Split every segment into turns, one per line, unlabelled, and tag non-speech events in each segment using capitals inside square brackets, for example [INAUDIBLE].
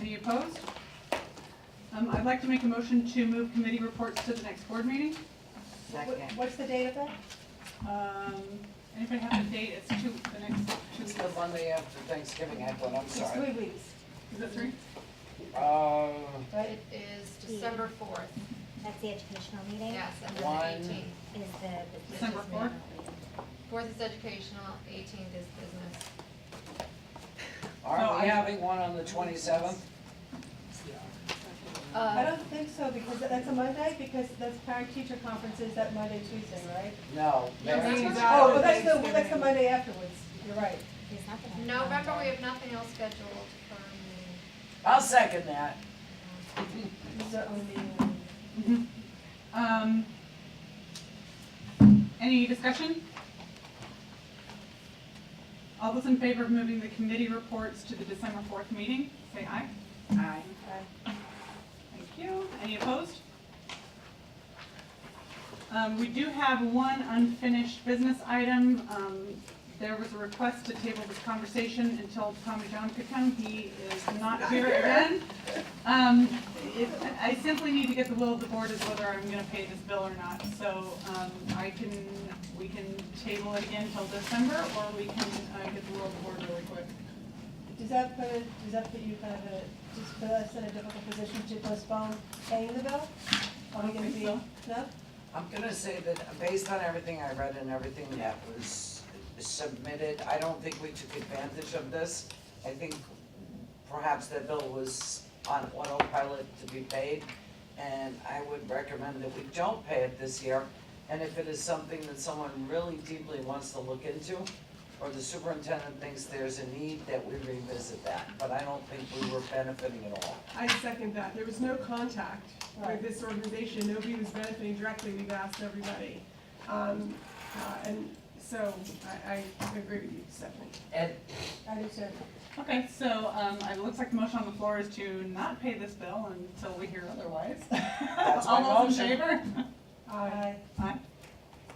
Any opposed? Um, I'd like to make a motion to move committee reports to the next board meeting.
Second. What's the date of that?
Um, anybody have the date? It's two, the next two
It's
weeks.
the Monday after Thanksgiving, I one. I'm
It's
sorry.
three weeks,
Is it three?
Uh,
right?
It is December fourth,
That's the educational meeting?
yes, and then
One.
the eighteenth.
Is the.
December fourth?
Fourth is educational, eighteenth is business.
aren't
I-
we having one on the twenty-seventh?
I
Uh,
don't think so, because that's a Monday, because that's parent teacher conferences that Monday, Tuesday, right?
No.
No,
Mary.
that's
not-
Oh, but that's the, well, that's the Monday afterwards, you're right.
There's nothing. on
November, we
Monday.
have nothing else scheduled for me.
I'll second that.
This is our only meeting.
Mhm. Um, any discussion? All those in favor of moving the committee reports to the December fourth meeting, say aye.
Aye.
Thank you. Any opposed? Um, we do have one unfinished business item. Um, there was a request to table this conversation until Tommy John could come. He is not here again. Um, if, I simply need to get the will of the board as whether I'm gonna pay this bill or not. So, um, I can, we can table it again till December, or we can, uh, get the will of the board really quick.
Does that put, does that put you kind of in a, just put us in a difficult position to postpone paying the bill? Are we gonna
think
be,
so.
no?
I'm gonna say that based on everything I read and everything that was submitted, I don't think we took advantage of this. I think perhaps that bill was on autopilot to be paid, and I would recommend that we don't pay it this year. And if it is something that someone really deeply wants to look into, or the superintendent thinks there's a need, that we revisit that. But I don't think we were benefiting at all.
I second that. There was no contact
Right.
with this organization. Nobody was benefiting directly. We've asked everybody. Um, uh, and so I, I agree with you, Stephanie.
Ed,
I do too.
Okay, so, um, it looks like the motion on the floor is to not pay this bill until we hear otherwise.
That's
[LAUGHS]
my
All those in
motion.
favor?
Uh,
Aye.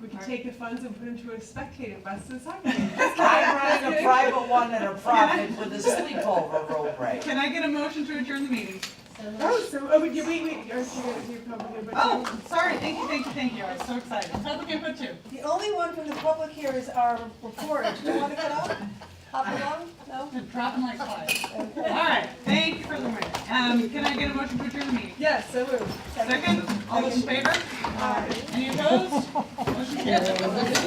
we can
Alright.
take the funds and put them to a spectator bus this afternoon.
I'm running a private one and a profit with a sleepover road break.
Can I get a motion to adjourn the meeting?
So let's-
Oh, so, oh, wait, wait, wait, oh, you're, you're probably, but.
Oh, sorry, thank you, thank you, thank you, I was so excited. Public input too.
The only one from the public here is our report. Do you want to cut off? Hop along? No?
I'm dropping like flies. All right, thank you for the win. Um, can I get a motion to adjourn the meeting?
Yes, so moved.
Second, all those in favor?
Aye.
Any opposed? Motion carries.